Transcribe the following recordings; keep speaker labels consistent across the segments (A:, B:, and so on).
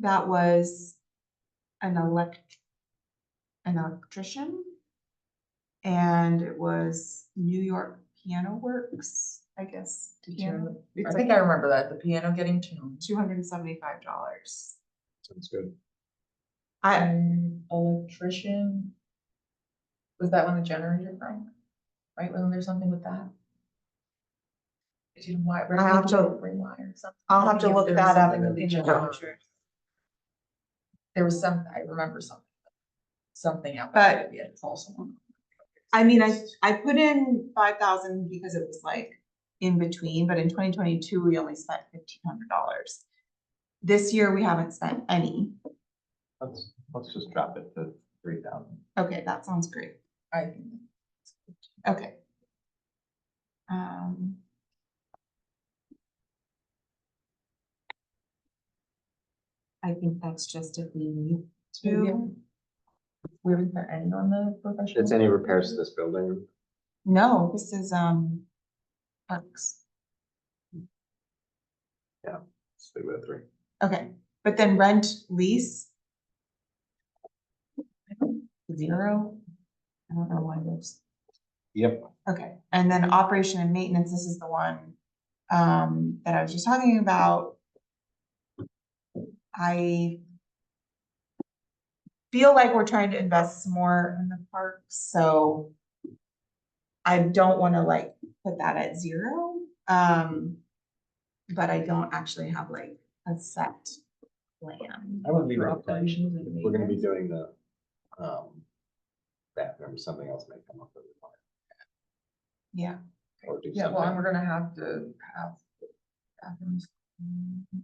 A: that was an elect, an electrician. And it was New York Piano Works, I guess.
B: Did you remember- I
A: It's
B: think I remember that, the piano getting tuned.
A: two hundred and seventy-five dollars.
C: Sounds good.
A: I,
B: An electrician. Was that when the generator broke? Right, wasn't there something with that? Did you wire?
A: I'll have to-
B: Rewire something.
A: I'll have
B: I
A: to
B: think
A: look
B: there was
A: that up.
B: something
A: in
B: with the
A: the
B: generator.
A: future.
B: There was some, I remember something. Something out.
A: But-
B: Yeah, it's also. one.
A: I mean, I, I put in five thousand because it was like in between, but in twenty twenty-two, we only spent fifteen hundred dollars. This year, we haven't spent any.
C: Let's, let's just drop it to three thousand.
A: Okay, that sounds great.
B: I think.
A: Okay. Um. I think that's just if we need to.
B: Where is there any on the professional?
D: It's any repairs to this building.
A: No, this is, um, parks.
C: Let's leave it at three.
A: Okay, but then rent, lease? Zero? I don't know why there's,
C: Yep.
A: okay, and then operation and maintenance, this is the one, um, that I was just talking about. I feel like we're trying to invest some more in the park, so I don't wanna like put that at zero, um, but I don't actually have like a set plan.
C: I would leave it
B: For
C: at ten.
B: operations and
C: We're gonna be
B: maintenance.
C: doing the, um, that, remember something else may come up with it.
A: Yeah,
C: Or do
B: Yeah, well, and
C: something.
B: we're gonna have to have bathrooms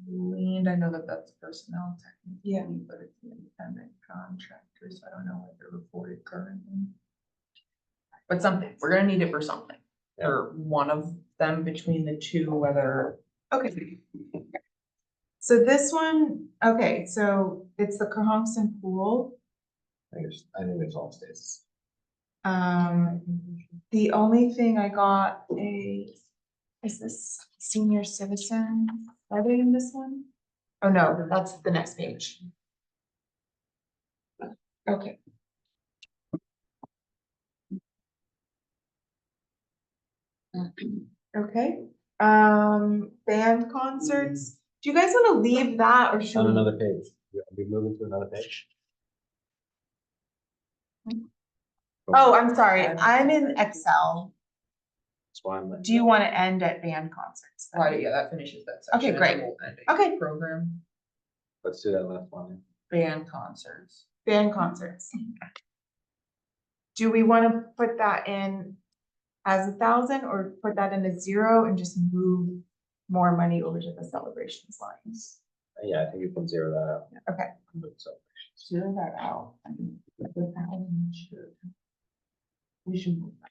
B: cleaned. I know that that's personnel
A: Yeah.
B: technically, but it's an independent contractor, so I don't know if they're reported currently. But something, we're gonna need it for something,
C: Yeah.
B: or one of them between the two, whether.
A: Okay. So this one, okay, so it's the Cohasson Pool.
C: I think it's, I think it's all stays.
A: Um, the only thing I got a, is this senior citizen, are they in this one? Oh, no, that's the next page. Okay. Okay, um, band concerts, do you guys wanna leave that or should?
C: On
A: we-
C: another page. You'll be moving to another page.
A: Oh, I'm sorry,
B: Um,
A: I'm in Excel.
C: That's why I'm like.
A: Do you want to end at band concerts? then?
B: Right, yeah, that finishes that section.
A: Okay,
B: and
A: great.
B: then we'll end it.
A: Okay.
B: Program,
C: Let's do that last one.
B: band concerts.
A: Band concerts. Do we want to put that in as a thousand or put that in a zero and just move more money over to the celebrations lines?
C: Yeah, I think you can zero that out.
A: Okay.
C: But So,
B: Zero that out. I mean, the thousand should- We should move that.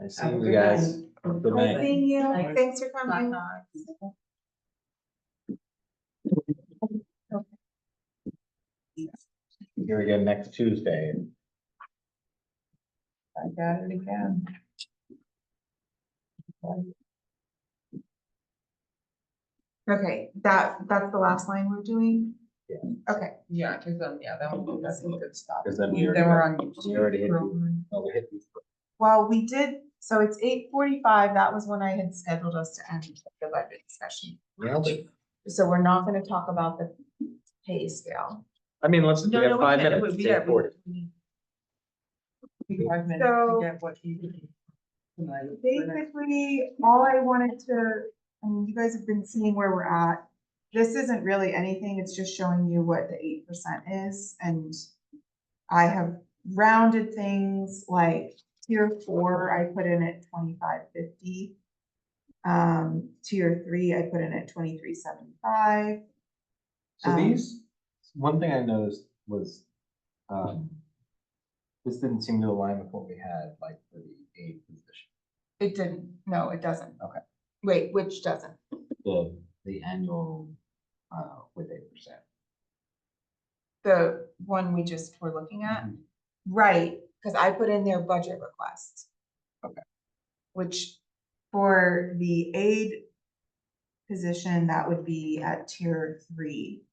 C: nice
B: Have a
C: seeing
B: good
C: you guys.
B: night.
C: Good
B: night.
C: night.
A: Thank you,
B: Thanks.
A: thanks for coming.
C: Here again next Tuesday.
B: I got it again.
A: Okay, that, that's the last line we're doing?
C: Yeah.
A: Okay,
B: Yeah, cause then, yeah, that would, that's a good stop.
C: 'Cause then we already
B: Then we're on.
C: got- we already hit you.
B: Groveland.
C: Oh, we hit you.
A: well, we did, so it's eight forty-five, that was when I had scheduled us to end the budget discussion.
C: Nailed it.
A: So we're not gonna talk about the pay scale.
D: I mean, let's, we
B: No, no,
D: have
B: we
D: five
B: can't.
D: minutes,
B: We-
D: it's
B: we got-
D: eight forty.
B: we- We got five minutes to
A: So-
B: get what you. tonight, for next-
A: Basically, all I wanted to, I mean, you guys have been seeing where we're at. This isn't really anything, it's just showing you what the eight percent is, and I have rounded things like tier four, I put in at twenty-five fifty. Um, tier three, I put in at twenty-three seventy-five.
C: So
A: Um,
C: these, one thing I noticed was, um, this didn't seem to align with what we had, like for the aid position.
A: It didn't, no, it doesn't.
C: Okay.
A: Wait, which doesn't?
C: The, the annual, uh, with eight percent.
A: The one we just were looking at? Right, because I put in their budget request.
C: Okay.
A: Which for the aid position, that would be at tier three.